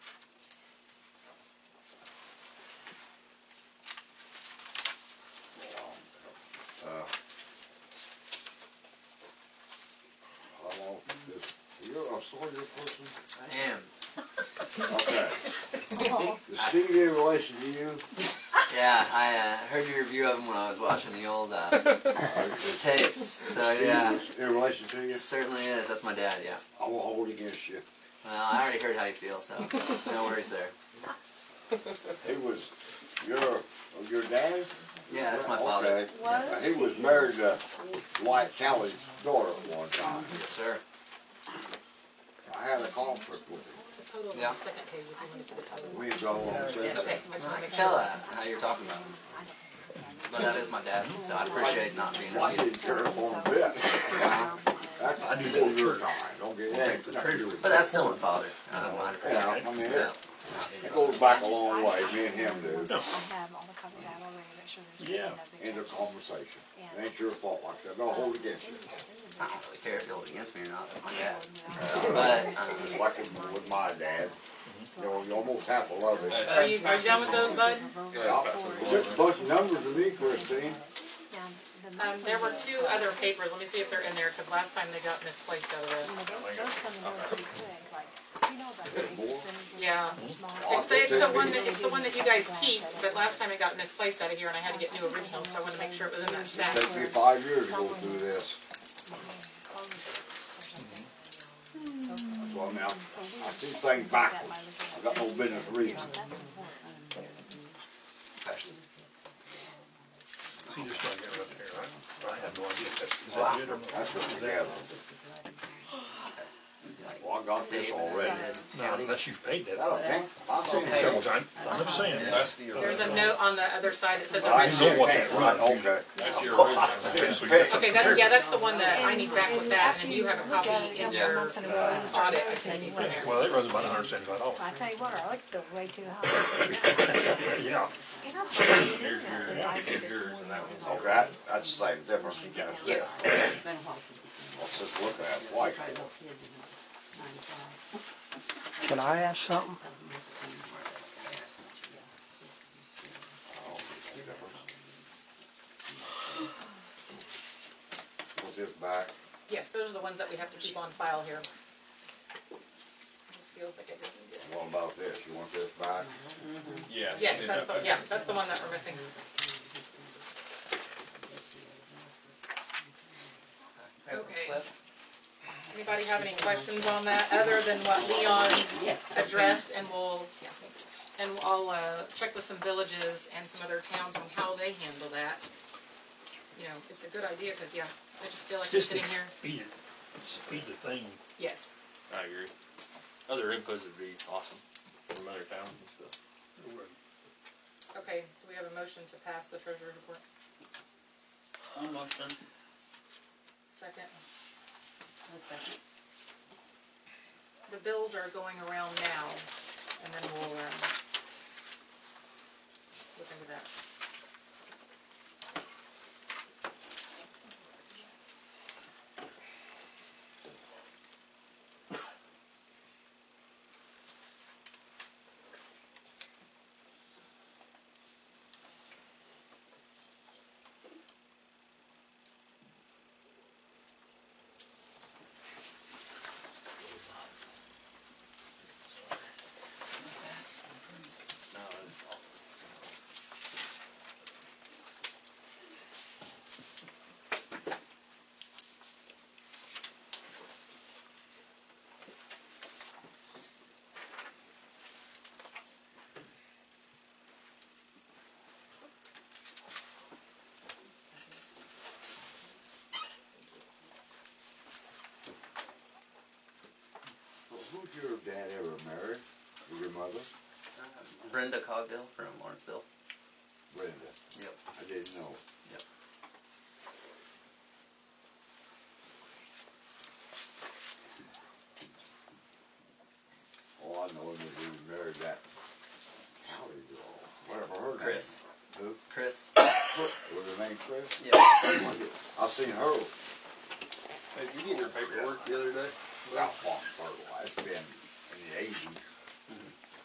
older person. I am. Okay. The senior relation to you, Yeah, I uh, heard your review of him when I was watching the old uh, tapes. So yeah, in relation to you, it certainly is. That's my dad. Yeah. I will hold against you. Well, I already heard how you feel, so no worries there. He was your, of your dad? Yeah, that's my father. Okay. Now, He was married to White Callie's daughter at one time. Yes, sir. I had a conflict with him. The total on Yeah. the second page, if you want to see the total. We was all on the same. It's okay, so I just I want to can make tell sure. uh, how you're talking about him. But that is my dad, so I appreciate not being I reviewed. didn't care one bit. That's before your time, don't get that. But that's still my father. Um, I Yeah, appreciate I it. mean, Yeah. it it goes back a long way, me and him do, I have all the copies out already, make sure there's Yeah. end no of big changes. conversation. It ain't your fault like that, don't hold against you. I don't really care if you hold it against me or not. That's my dad. Yeah. But um, Like it with my dad, you know, you almost have to love it. Are you, are you done with those, bud? Just a bunch of numbers to me, Christine. Now, the- Um, there were two other papers, let me see if they're in there, because last time they got misplaced out you of know, Those those come and go pretty quick, like, you know about the big expenditure. Yeah. the small- it. It's the, it's the one that, it's the one that you guys keep, but last time it got misplaced out of here, and I had to get new originals, so I wanted to make sure it was in that stack. Takes me five years to go through this. So I mean, I So we- I see things backwards. I got no business reading. That's important. See, you're still getting up there, I, I have no idea if that's, is Wow. that good or not? That's what we gather. Well, I got this Dave and already. Ned No, County. unless you've paid That'll that. take, I've seen Several it. times, I'm just saying. That's the There's original. a note on the other side that says I original. know what that right, okay. That's the original. Seriously, that's Okay, that, yeah, that's the one that I need back with that, and you have a copy in Yeah. your audit, I think you put there. Well, that runs about hundred seventy-five dollars, I tell you what, our electric bill's way too high. yeah. And I'm telling you, Here's now, your- that I think here's it's yours, more and that than- Okay, that- that's the same difference. Yes. Let's just look at it, white. Can I ask something? Put this back. Yes, those are the ones that we have to keep on file here. Just feels like I didn't do it. What about this? You want this back? Yes. Yes, that's the, yeah, that's the one that we're missing. Okay. Anybody have any questions on that, other than what Leon addressed, and we'll, yeah, thanks. And I'll, uh, check with some villages and some other towns on how they handle that. You know, it's a good idea, cause yeah, I just feel like we're Just sitting here, speed it, speed the thing, yes, I agree. Other inputs would be awesome from other towns and stuff. okay, do we have a motion to pass the treasurer's report? Second. The bills are going around now, and then we'll, um, look into that. Well, who'd your dad ever marry? Or Your mother? Brenda Cogdill from Lawrenceville. Brenda. Yep. I didn't know. Yep. All I know is that he was married that Hallie girl, whatever her name. Chris. Who? Chris. Was her name Chris? Yeah. I seen her Hey, did you get your paperwork the other day? out long, her. It's been in the eighties.